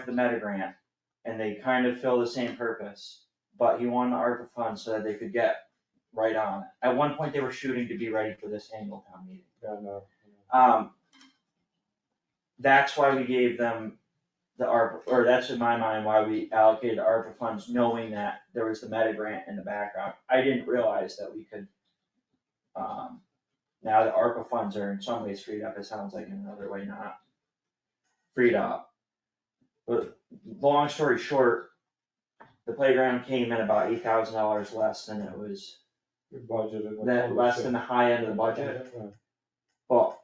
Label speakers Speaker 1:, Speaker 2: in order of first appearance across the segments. Speaker 1: for the meta grant, and they kind of fill the same purpose, but he won the ARPA fund so that they could get right on. it. At one point, they were shooting to be ready for this annual town meeting.
Speaker 2: Yeah, no.
Speaker 1: Um, that's why we gave them the ARPA, or that's in my mind why we allocated ARPA funds, knowing that there was the meta grant in the background. I didn't realize that we could, um, now the ARPA funds are in some ways freed up, it sounds like in another way not freed up. But long story short, the playground came in about eight thousand dollars less than it was,
Speaker 2: We budgeted. like
Speaker 1: that less than the high end of the budget.
Speaker 2: Yeah,
Speaker 1: But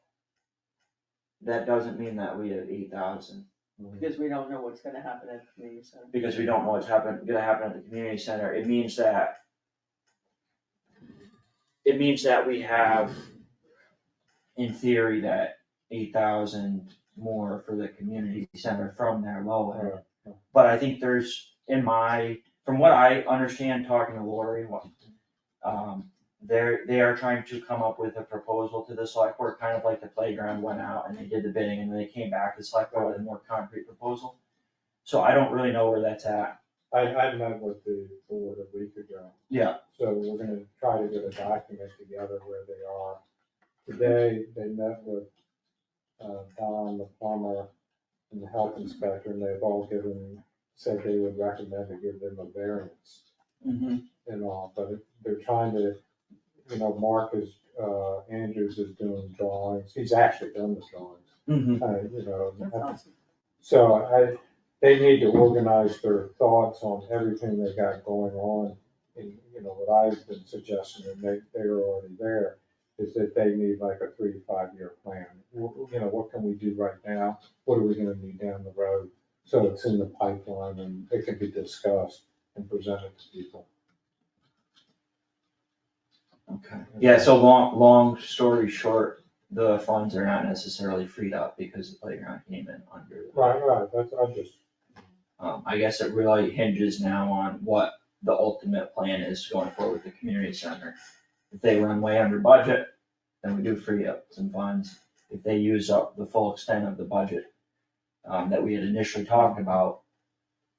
Speaker 1: that doesn't mean that we have eight thousand,
Speaker 3: Because we don't know what's gonna happen at the community center.
Speaker 1: because we don't know what's happen, gonna happen at the community center, it means that it means that we have, in theory, that eight thousand more for the community center from their low end.
Speaker 2: yeah.
Speaker 1: But I think there's, in my, from what I understand, talking to Lori, what, um, they're, they are trying to come up with a proposal to the select board, kind of like the playground went out and they did the bidding and then they came back to the select board with a more concrete proposal. So I don't really know where that's at.
Speaker 2: I, I met with the board a week ago.
Speaker 1: Yeah.
Speaker 2: So we're gonna try to get a document together where they are. Today, they met with, uh, Don, the plumber, and the health inspector, and they've all given, said they would recommend to give them a variance and all, but they're trying to, you know, Mark is, uh, Andrews is doing drawings, he's actually done the drawings.
Speaker 1: Mm-hmm.
Speaker 2: Uh, you know,
Speaker 3: That's
Speaker 2: I-
Speaker 3: awesome.
Speaker 2: so I, they need to organize their thoughts on everything they got going on. And, you know, what I've been suggesting, and they, they were already there, is that they need like a three, to five-year plan. Wh- You know, what can we do right now? What are we gonna need down the road? So it's in the pipeline and it can be discussed and presented to people.
Speaker 1: Okay. Yeah, so long, long story short, the funds are not necessarily freed up because the playground came in under. the-
Speaker 2: Right, right, that's, I just,
Speaker 1: Um, I guess it really hinges now on what the ultimate plan is going forward with the community center. If they run way under budget, then we do free up some funds. If they use up the full extent of the budget, um, that we had initially talked about,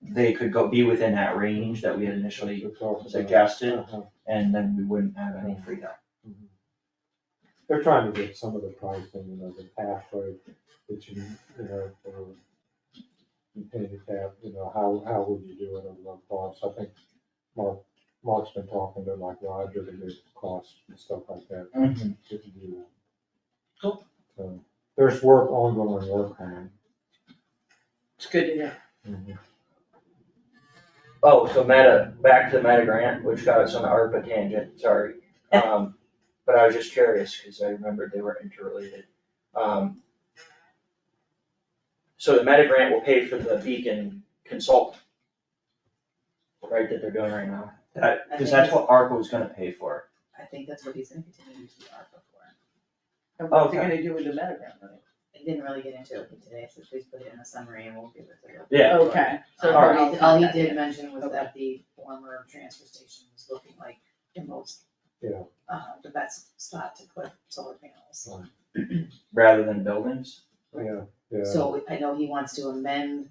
Speaker 1: they could go, be within that range that we had initially
Speaker 2: it's all.
Speaker 1: suggested,
Speaker 2: Uh-huh.
Speaker 1: and then we wouldn't have any freed up.
Speaker 2: They're trying to get some of the pricing, you know, the pathway that you, you know, for handicap, you know, how, how would you do it on the cost? I think Mark, Mark's been talking to like Roger to get costs and stuff like that. to do that.
Speaker 1: Cool.
Speaker 2: So, There's work, ongoing work on
Speaker 3: It's good to hear.
Speaker 2: it.
Speaker 1: Oh, so meta, back to the meta grant, which got us on the ARPA tangent, sorry. Um, but I was just curious, cause I remembered they were interrelated. Um. So the meta grant will pay for the beacon consultant. Right, that they're doing right now. That-
Speaker 3: I
Speaker 1: cause
Speaker 3: think
Speaker 1: that's what ARPA was gonna pay for.
Speaker 4: I think that's what he's gonna continue to use the ARPA for.
Speaker 3: And what's it
Speaker 1: Okay.
Speaker 3: gonna do with the metagram, money?
Speaker 4: They didn't really get into it with today, so please put it in the summary and we'll give it to you.
Speaker 1: Yeah.
Speaker 3: Okay, so.
Speaker 1: All right.
Speaker 4: All he, all he did mention was
Speaker 3: Okay.
Speaker 4: that the former transfer station was looking like the most,
Speaker 2: Yeah,
Speaker 4: uh, the best spot to put solar panels.
Speaker 1: Rather than buildings.
Speaker 2: yeah, yeah.
Speaker 4: So I know he wants to amend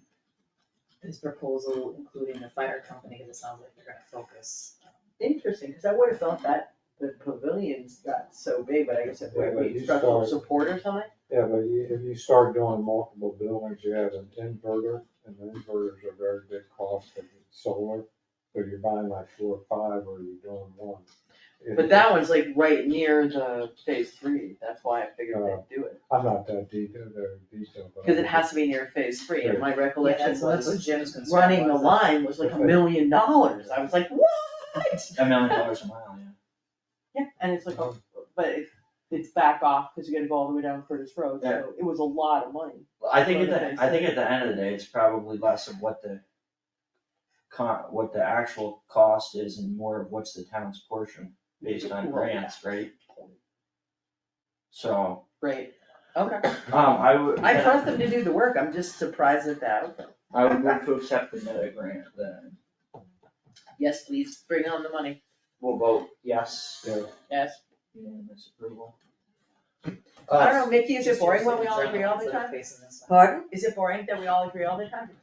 Speaker 4: his proposal, including the fire company, because it sounds like they're gonna focus. um,
Speaker 3: Interesting, cause I would've thought that the pavilions got so big, but I guess it
Speaker 2: Yeah,
Speaker 3: would
Speaker 2: but
Speaker 3: be
Speaker 2: you
Speaker 3: structural
Speaker 2: start-
Speaker 3: support or something?
Speaker 2: Yeah, but you- if you start doing multiple buildings, you have an inverter, and inverters are very big cost of solar. So you're buying like four or five, or you're doing one. It-
Speaker 3: But that one's like right near the phase three, that's why I figured
Speaker 2: Oh.
Speaker 3: they'd do it,
Speaker 2: I'm not that detailed, very detailed. but I
Speaker 3: cause it
Speaker 2: think-
Speaker 3: has to be near phase three, and my recollection
Speaker 4: that's- that's what
Speaker 3: was
Speaker 4: Jim's concern
Speaker 3: running the
Speaker 4: was.
Speaker 3: line was like a
Speaker 2: Okay.
Speaker 3: million dollars, I was like, what?
Speaker 1: A million dollars a mile, yeah.
Speaker 3: Yeah, and it's like, oh, but it's, it's back off, cause you gotta go all the way down Curtis Road,
Speaker 1: Yeah.
Speaker 3: so it was a lot of money.
Speaker 1: I think at the, I think at the end of the day, it's probably less of what the con, what the actual cost is and more of what's the town's portion based on grants, right? So,
Speaker 3: Right, okay.
Speaker 1: um, I would.
Speaker 3: I trust them to do the work, I'm just surprised at that. outcome.
Speaker 1: I would move to accept the meta grant, then
Speaker 3: Yes, please, bring on the money.
Speaker 1: we'll vote yes,
Speaker 2: Yeah,
Speaker 3: Yes.
Speaker 1: unanimous approval.
Speaker 3: I don't know, Mickey, is it boring when we all
Speaker 4: Jim's
Speaker 3: agree all the
Speaker 4: like
Speaker 3: time?
Speaker 4: facing this way.
Speaker 3: Pardon? Is it boring that we all agree all the time?